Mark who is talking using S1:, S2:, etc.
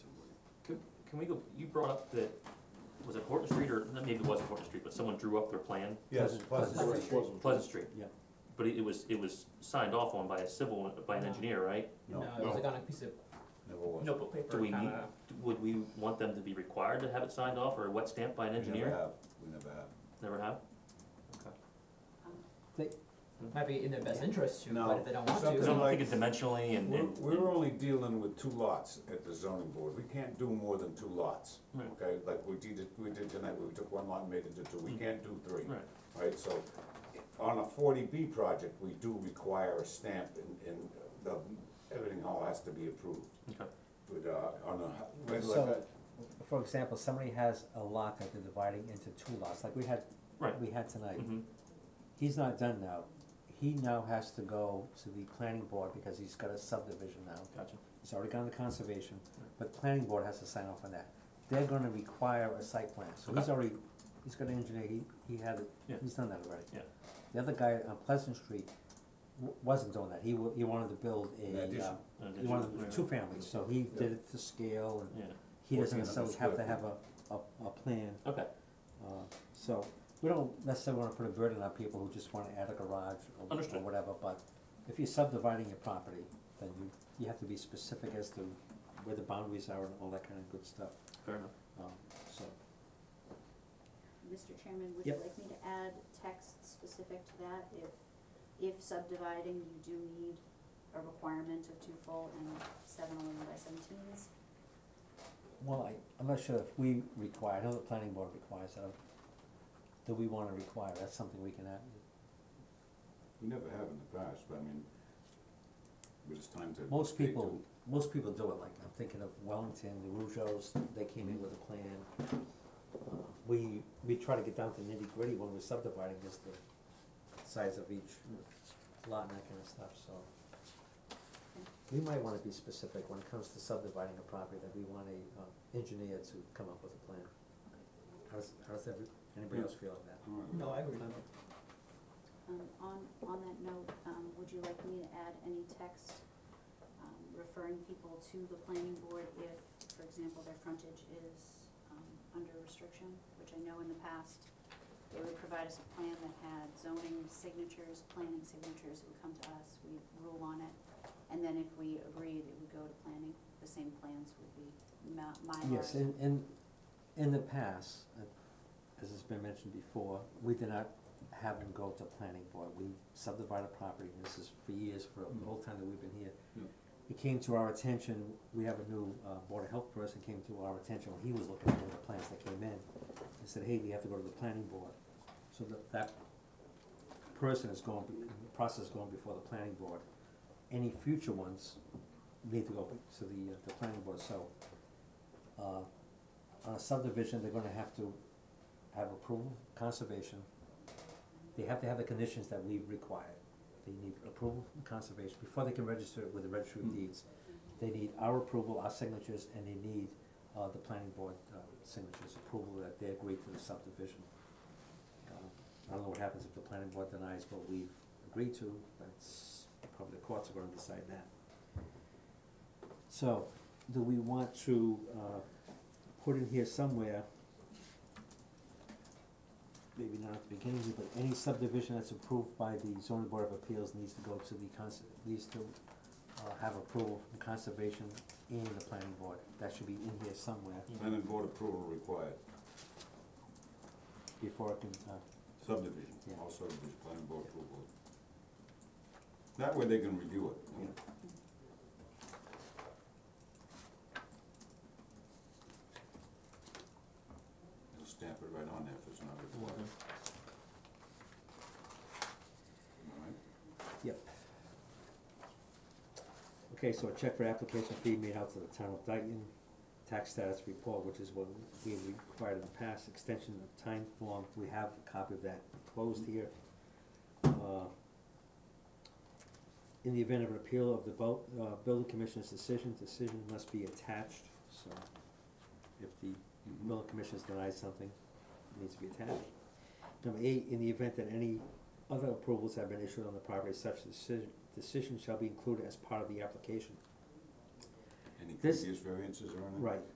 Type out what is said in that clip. S1: Can we go, you brought up that, was it Horton Street or, maybe it wasn't Horton Street, but someone drew up their plan,
S2: Yes,
S3: Pleasant-
S2: Pleasant
S3: Pleasant
S2: Street.
S1: Pleasant Street.
S3: Yeah.
S1: But it it was, it was signed off on by a civil, by an
S4: No.
S1: engineer, right?
S2: No,
S4: No, it was like on a piece of
S2: never was.
S4: notebook paper,
S1: Do we need-
S4: kinda,
S1: Would we want them to be required to have it signed off or wet stamped by an
S2: We never
S1: engineer?
S2: have, we never have.
S1: Never have?
S4: might be in their best interest to,
S2: No.
S4: but if they don't want
S1: I
S2: Something-
S4: to,
S1: don't
S2: like-
S1: think it dimensionally and,
S2: We're,
S1: and.
S2: we're only dealing with two lots at the zoning board, we can't do more than two lots,
S1: Right.
S2: okay? Like we did, it- we did tonight, we took one lot and made it into two, we
S1: Mm.
S2: can't do three,
S1: Right,
S2: right? So, on a forty B project, we do require a stamp and, and the, everything all has to be approved.
S1: okay,
S2: But, uh, on a, like,
S3: So-
S2: a-
S3: For example, somebody has a lot that they're dividing into two lots, like we had,
S1: Right.
S3: we had tonight.
S1: mm-hmm,
S3: He's not done now, he now has to go to the planning board because he's got a subdivision now.
S1: gotcha,
S3: He's already gone to conservation,
S1: Right.
S3: but planning board has to sign off on that. They're gonna require a site plan, so he's
S1: Okay.
S3: already, he's got an engineer, he, he had, it-
S1: Yeah.
S3: he's done that already.
S1: Yeah.
S3: The other guy on Pleasant Street w- wasn't doing that, he wa- he wanted to build
S2: An
S3: a, uh,
S2: addition.
S1: An
S3: he wanted
S1: addition,
S3: to
S1: right.
S3: do two families, so he did it to scale and
S1: yeah,
S3: he
S2: 1400
S3: doesn't necessarily have to
S2: square
S3: have a, a, a plan,
S1: okay,
S3: uh, so, we don't necessarily wanna put a burden on people who just wanna add a garage or, or
S1: Understood.
S3: whatever, but if you're subdividing your property, then you, you have to be specific as to where the boundaries are and all that kinda good stuff,
S1: fair enough.
S3: um, so,
S5: Mr. Chairman, would you
S3: Yep.
S5: like me to add text specific to that? If, if subdividing, you do need a requirement of two full and seven eleven by seventeens?
S3: well, I, I'm not sure if we require, I know the planning board requires that, do we wanna require, that's something we can add,
S2: we never have in the past, but I mean, but it's time to.
S3: Most
S2: they
S3: people,
S2: do.
S3: most people do it, like, I'm thinking of Wellington, the Rougeos, they came in with a plan. Uh, We, we try to get down to nitty gritty when we're subdividing, just the size of each lot and that kinda stuff, so. We might wanna be specific when it comes to subdividing a property, that we want a, uh, engineer to come up with a plan. How does, how does every, anybody else feel on that?
S2: All right.
S4: no, I agree.
S5: Um, on, on that note, um, would you like me to add any text, um, referring people to the planning board if, for example, their frontage is, um, under restriction? Which I know in the past, they would provide us a plan that had zoning signatures, planning signatures, it would come to us, we'd rule on it. And then if we agreed, it would go to planning, the same plans would be ma- mylars.
S3: Yes, in, in, in the past, uh, as has been mentioned before, we did not have them go to planning board, we subdivided a property, and this is for years, for the whole time that we've been here.
S2: Yeah.
S3: It came to our attention, we have a new, uh, board of health person came to our attention, he was looking at the plans that came in, and said, hey, we have to go to the planning board. So that, that person is going, be- the process is going before the planning board. Any future ones need to go to the, uh, the planning board, so, uh, on a subdivision, they're gonna have to have approval, conservation. They have to have the conditions that we've required. They need approval from conservation, before they can register it with the registry of deeds. They need our approval, our signatures, and they need, uh, the planning board, uh, signatures, approval that they agree to the subdivision. Uh, I don't know what happens if the planning board denies what we've agreed to, that's, probably the courts are gonna decide that. So, do we want to, uh, put in here somewhere, maybe not at the beginning, here, but any subdivision that's approved by the zoning board of appeals needs to go to the cons- needs to, uh, have approval from conservation and the planning board, that should be in here somewhere
S2: Planning board approval required,
S3: before it can, uh,
S2: subdivision,
S3: Yeah.
S2: all subdivision, planning board approval. That way they can review it. you know? They'll stamp it right on there if it's not required, all right?
S3: Yep. Okay, so a check for application fee made out to the town of Dayton, tax status report, which is what we required in the past, extension of time form, we have a copy of that closed here. Uh, In the event of an appeal of the bu- uh, building commissioner's decision, decision must be attached, so if the
S2: Mhm.
S3: Miller Commission's denied something, it needs to be attached. Number eight, in the event that any other approvals have been issued on the property, such decision, decision shall be included as part of the application.
S2: Any
S3: This-
S2: previous variances or anything?
S3: Right,